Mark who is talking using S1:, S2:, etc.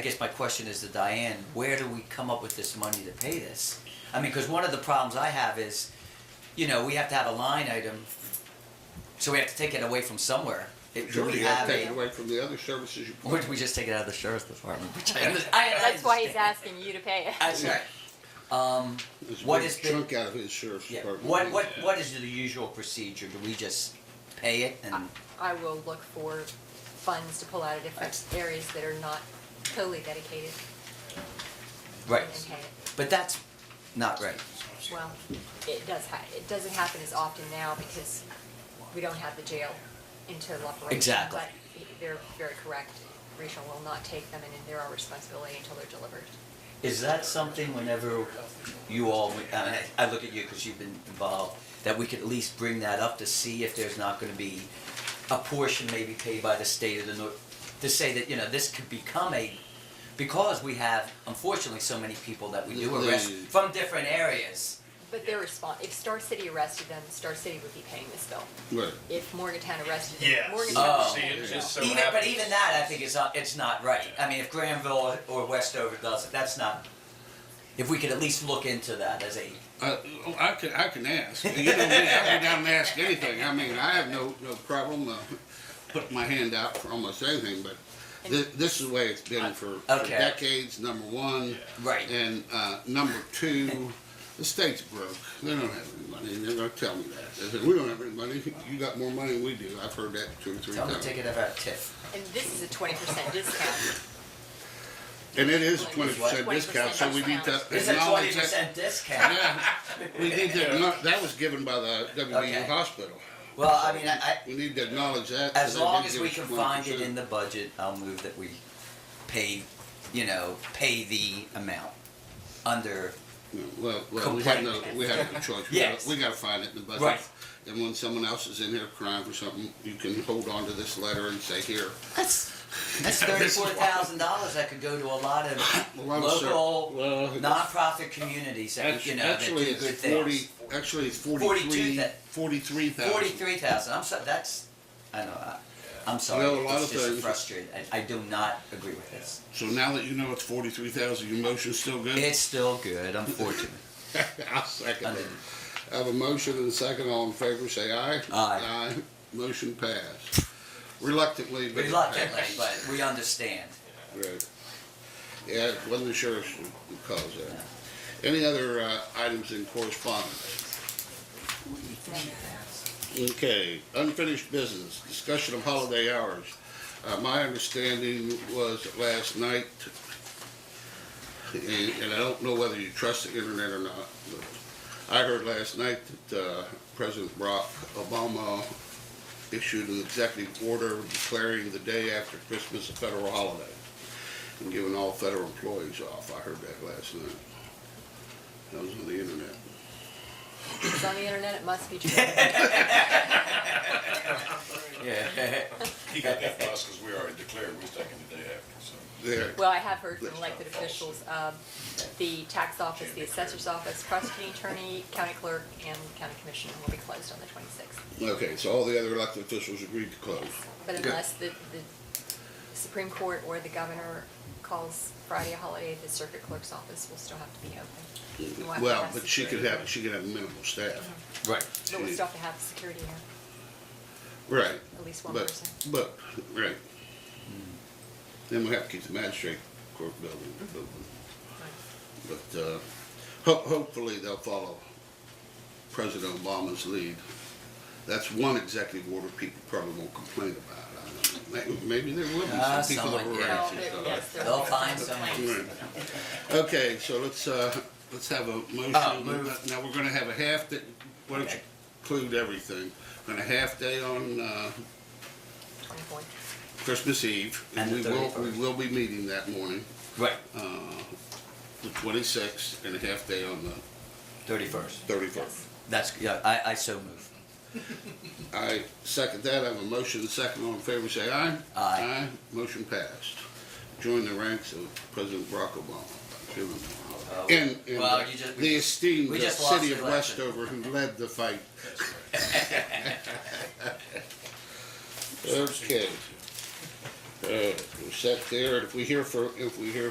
S1: I guess my question is to Diane, where do we come up with this money to pay this? I mean, because one of the problems I have is, you know, we have to have a line item, so we have to take it away from somewhere. It- Do
S2: Sure,
S1: we
S2: you have
S1: have
S2: to take it
S1: a,
S2: away from the other services you
S1: or
S2: put.
S1: do we just take it out of the sheriff's department, which I under- I- I
S3: That's why he's
S1: understand.
S3: asking you to pay it.
S1: That's right. Um,
S2: There's a
S1: what
S2: big
S1: has been-
S2: Chunk out of his sheriff's
S1: yeah,
S2: department.
S1: what, what, what is the usual procedure? Do we just pay it
S3: Uh,
S1: and,
S3: I will look for funds to pull out of different areas that are not totally dedicated
S1: right?
S3: and pay it.
S1: But that's not right.
S3: Well, it does ha, it doesn't happen as often now because we don't have the jail in total operation.
S1: Exactly.
S3: But they're very correct. Rachel will not take them and they're our responsibility until they're delivered.
S1: Is that something whenever you all, I mean, I I look at you because you've been involved, that we could at least bring that up to see if there's not gonna be a portion maybe paid by the state of the North, to say that, you know, this could become a, because we have unfortunately so many people that we do arrest
S2: Mm.
S1: from different areas.
S3: But their response, if Star City arrested them, Star City would be paying this bill.
S2: Right.
S3: If Morgantown arrested them,
S4: Yes.
S3: Morgantown would
S1: Oh.
S3: be
S4: See,
S3: paying
S4: it
S3: the bill.
S4: just so
S1: Even, but
S4: happens-
S1: even that, I think is not, it's not right. I mean, if Granville or Westover does it, that's not, if we could at least look into that as a,
S2: Uh, oh, I can, I can ask. You don't need, I go down and ask anything. I mean, I have no, no problem, uh, putting my hand out for almost anything, but thi- this is the way it's been for for
S1: Okay.
S2: decades, number one.
S1: Right.
S2: And, uh, number two, the state's broke. They don't have any money, and they're gonna tell me that. They say, we don't have any money. You got more money than we do. I've heard that two or three
S1: tell me,
S2: times.
S1: take it out of TIF.
S3: And this is a twenty percent discount.
S2: And it is a
S3: Like,
S2: twenty percent
S3: 20%
S2: discount, so we need to
S3: discount.
S1: It's a twenty
S2: acknowledge that.
S1: percent discount.
S2: Yeah, we need to, acknow- that was given by the
S1: Okay.
S2: WVU hospital.
S1: Well, I mean, I, I,
S2: We need to acknowledge that.
S1: as long as we can find it in the budget, I'll move that we pay, you know, pay the amount under,
S2: Well, well, we have no,
S1: complaint.
S2: we have no choice. We
S1: Yes.
S2: gotta- We gotta find it in the budget.
S1: Right.
S2: And when someone else is in here crying for something, you can hold on to this letter and say, here.
S1: that's, that's
S2: This is
S1: thirty-four
S2: why.
S1: thousand dollars that could go to a lot of
S2: Well, I'm sure-
S1: local
S2: well, it's-
S1: nonprofit communities that, you know, that do
S2: Actually,
S1: good
S2: it's
S1: things.
S2: forty, actually, it's
S1: 42
S2: forty-three,
S1: that-
S2: forty-three thousand.
S1: Forty-three thousand, I'm sorry, that's, I know, I, I'm sorry,
S2: Well, a lot
S1: it's
S2: of
S1: just
S2: things-
S1: frustrating, I, I do not agree with this.
S2: So now that you know it's forty-three thousand, your motion's still good?
S1: It's still good, unfortunately.
S2: I'll second
S1: Under-
S2: it. I have a motion and a second. All in favor, say aye.
S1: Aye.
S2: Motion passed. Reluctantly, but it passed.
S1: reluctantly, but we understand.
S2: Right. Yeah, one of the sheriffs who calls that. Any other uh, items in correspondence? Okay, unfinished business, discussion of holiday hours. Uh, My understanding was that last night, and and I don't know whether you trust the internet or not, but I heard last night that uh, President Barack Obama issued an executive order declaring the day after Christmas a federal holiday and giving all federal employees off. I heard that last night. That was on the internet.
S3: If it's on the internet, it must be true.
S1: Yeah.
S5: He got that for us because we already declared we was taking the day after, so.
S2: There.
S3: Well, I have heard from elected officials, um, the tax office, the assessor's office, prosecuting attorney, county clerk, and county commissioner will be closed on the twenty-sixth.
S2: Okay, so all the other elected officials agreed to close.
S3: But
S1: Good.
S3: unless the, the Supreme Court or the governor calls Friday a holiday, the circuit clerk's office will still have to be open. We'll have to
S2: Well,
S3: have
S2: but
S3: se-
S2: she could have, she could have minimal staff.
S3: Mm-hmm.
S1: Right.
S3: But we still have to have security here,
S2: Right,
S3: at least one
S2: but,
S3: person.
S2: but, right. Then we have to keep the magistrate court building open. But uh, ho- hopefully they'll follow President Obama's lead. That's one executive order people probably won't complain about. I don't know. May- Maybe there will be
S1: Ah,
S2: some people that
S1: someone-
S2: will
S1: yeah.
S2: raise
S3: Well,
S2: it.
S3: there-
S2: though.
S3: yes, there
S1: They'll
S3: will be
S1: find
S3: some
S1: someone.
S3: complaints.
S2: Okay, so let's, uh, let's have a motion.
S1: Oh, move.
S2: Now, we're gonna have a half day, why don't you
S1: Okay.
S2: include everything? We're Gonna half day on uh,
S3: Twenty-fourth.
S2: Christmas Eve.
S1: And
S2: we
S1: the
S2: will
S1: 31st.
S2: We will be meeting that morning,
S1: Right.
S2: uh, the 26th, and a half day on the
S1: Thirty-first.
S2: 31st.
S1: That's, yeah, I, I so move.
S2: I second that, I have a motion, second, all in favor, say aye.
S1: Aye.
S2: motion passed. Join the ranks of President Barack Obama. Give him a holler.
S1: Oh,
S2: And, and
S1: well, you just-
S2: the esteemed uh,
S1: we just lost
S2: city
S1: the
S2: of
S1: election.
S2: Westover who led the fight. Okay. Uh, let's set there. If we hear for, if we hear